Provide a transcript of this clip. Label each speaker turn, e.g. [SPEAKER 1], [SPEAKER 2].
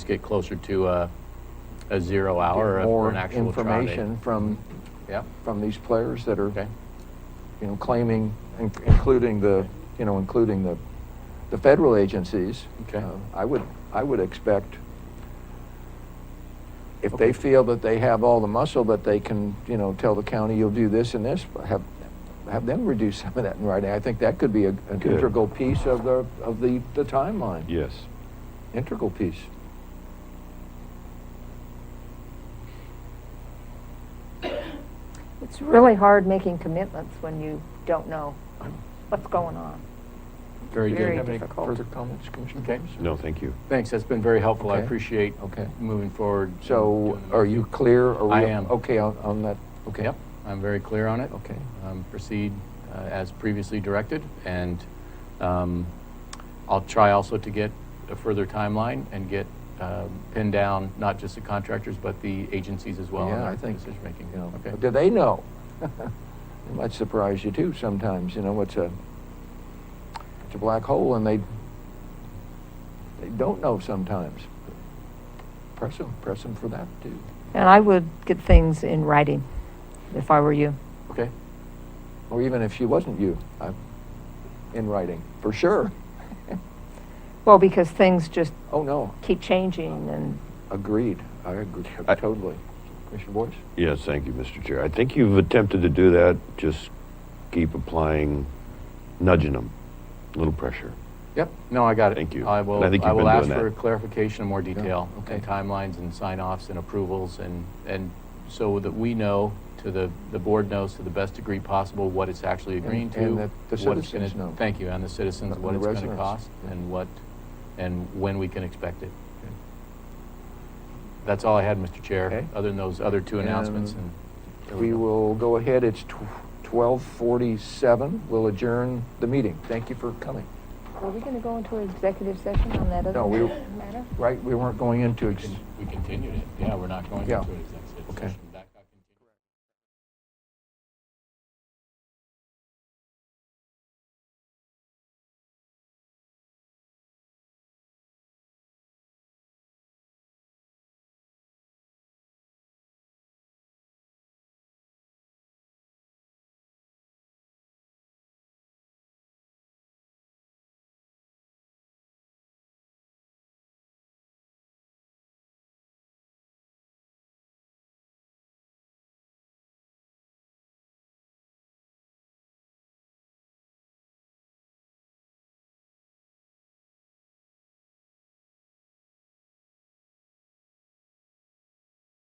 [SPEAKER 1] Let's get closer to a, a zero hour
[SPEAKER 2] get
[SPEAKER 1] if we're
[SPEAKER 2] more
[SPEAKER 1] an actual trial date.
[SPEAKER 2] information from,
[SPEAKER 1] Yeah,
[SPEAKER 2] from these players that are,
[SPEAKER 1] okay,
[SPEAKER 2] you know, claiming, in- including the, you know, including the, the federal agencies.
[SPEAKER 1] Okay.
[SPEAKER 2] Uh, I would, I would expect if they feel that they have all the muscle that they can, you know, tell the county, you'll do this and this, have, have them reduce some of that in writing. I think that could be a- an
[SPEAKER 3] Good.
[SPEAKER 2] integral piece of the, of the, the timeline.
[SPEAKER 3] Yes.
[SPEAKER 2] Integral piece.
[SPEAKER 4] It's really hard making commitments when you don't know what's going on.
[SPEAKER 1] very
[SPEAKER 4] Very
[SPEAKER 1] good.
[SPEAKER 2] Have any
[SPEAKER 4] difficult.
[SPEAKER 2] further comments, Commissioner
[SPEAKER 1] Okay.
[SPEAKER 2] Thomas?
[SPEAKER 3] No, thank you.
[SPEAKER 1] Thanks, that's been very helpful. I
[SPEAKER 2] Okay.
[SPEAKER 1] appreciate
[SPEAKER 2] Okay.
[SPEAKER 1] moving forward. and
[SPEAKER 2] So
[SPEAKER 1] doing the-
[SPEAKER 2] are you clear? Are we-
[SPEAKER 1] I am.
[SPEAKER 2] Okay, on, on that, okay.
[SPEAKER 1] Yep, I'm very clear on it.
[SPEAKER 2] Okay.
[SPEAKER 1] Um, Proceed uh, as previously directed, and um, I'll try also to get a further timeline and get um, pinned down, not just the contractors, but the agencies as well in
[SPEAKER 2] Yeah,
[SPEAKER 1] our
[SPEAKER 2] I think,
[SPEAKER 1] decision-making.
[SPEAKER 2] you know,
[SPEAKER 1] Okay.
[SPEAKER 2] do they know? It might surprise you too sometimes, you know, it's a, it's a black hole and they, they don't know sometimes. Press them, press them for that too.
[SPEAKER 4] And I would get things in writing if I were you.
[SPEAKER 2] Okay. Or even if she wasn't you, I, in writing, for sure.
[SPEAKER 4] Well, because things just
[SPEAKER 2] Oh, no,
[SPEAKER 4] keep changing and
[SPEAKER 2] agreed. I agree
[SPEAKER 3] I-
[SPEAKER 2] totally. Commissioner Boyce?
[SPEAKER 3] Yes, thank you, Mr. Chair. I think you've attempted to do that. Just keep applying, nudging them, a little pressure.
[SPEAKER 1] Yep, no, I got it.
[SPEAKER 3] Thank you.
[SPEAKER 1] I will,
[SPEAKER 3] And I think
[SPEAKER 1] I
[SPEAKER 3] you've
[SPEAKER 1] will
[SPEAKER 3] been
[SPEAKER 1] ask
[SPEAKER 3] doing
[SPEAKER 1] for
[SPEAKER 3] that.
[SPEAKER 1] clarification and more detail
[SPEAKER 2] okay.
[SPEAKER 1] and timelines and sign-offs and approvals and, and so that we know, to the, the board knows to the best degree possible what it's actually agreeing to.
[SPEAKER 2] and that the
[SPEAKER 1] what it's
[SPEAKER 2] citizens
[SPEAKER 1] gonna-
[SPEAKER 2] know.
[SPEAKER 1] Thank you, and the citizens,
[SPEAKER 2] And
[SPEAKER 1] what
[SPEAKER 2] the
[SPEAKER 1] it's gonna
[SPEAKER 2] residents.
[SPEAKER 1] cost
[SPEAKER 2] Yeah.
[SPEAKER 1] and what, and when we can expect it. That's all I had, Mr. Chair,
[SPEAKER 2] Okay.
[SPEAKER 1] other than those other two announcements
[SPEAKER 2] And
[SPEAKER 1] and. there we
[SPEAKER 2] We
[SPEAKER 1] go.
[SPEAKER 2] will go ahead, it's twelve forty-seven, we'll adjourn the meeting. Thank you for coming.
[SPEAKER 4] Were we going to go into an executive session on that
[SPEAKER 2] No,
[SPEAKER 4] other
[SPEAKER 2] we-
[SPEAKER 4] matter?
[SPEAKER 2] Right, we weren't going into, ex-
[SPEAKER 1] We continued it, yeah, we're not going
[SPEAKER 2] Yeah.
[SPEAKER 1] into it.